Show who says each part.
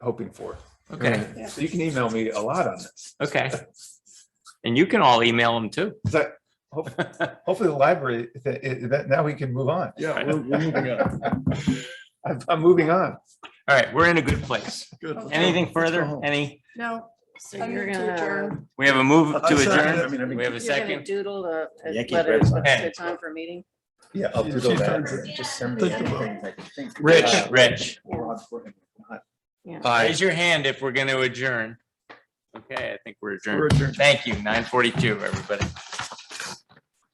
Speaker 1: hoping for.
Speaker 2: Okay,
Speaker 1: Right. So you can email me a lot on this.
Speaker 2: okay. And you can all email them too.
Speaker 1: So hope- hopefully the library, that, it- that now we can move on.
Speaker 3: Yeah, we're, we're moving on.
Speaker 1: I'm, I'm moving on.
Speaker 2: All right, we're in a good place.
Speaker 3: Good.
Speaker 2: Anything
Speaker 3: Let's go
Speaker 2: further?
Speaker 3: home.
Speaker 2: Any,
Speaker 4: No.
Speaker 5: So you're gonna,
Speaker 2: we have a move
Speaker 3: I
Speaker 2: to
Speaker 3: second it. I
Speaker 2: adjourn.
Speaker 3: mean, I mean,
Speaker 2: We have a
Speaker 5: you're gonna
Speaker 2: second.
Speaker 5: doodle the,
Speaker 6: Yeah, I can't
Speaker 5: letter
Speaker 6: grab
Speaker 5: to
Speaker 2: something.
Speaker 5: the time for meeting?
Speaker 1: Yeah.
Speaker 6: I'll
Speaker 3: She-
Speaker 6: doodle
Speaker 3: she
Speaker 6: that.
Speaker 3: turns it.
Speaker 6: Just send me
Speaker 3: Think about
Speaker 6: anything I can think of.
Speaker 2: Rich,
Speaker 6: Uh,
Speaker 2: Rich,
Speaker 6: or I'd put it in.
Speaker 5: Yeah.
Speaker 2: raise your hand if we're going to adjourn. Okay, I think we're
Speaker 3: We're
Speaker 2: adjourned.
Speaker 3: adjourned.
Speaker 2: Thank you, nine forty-two, everybody.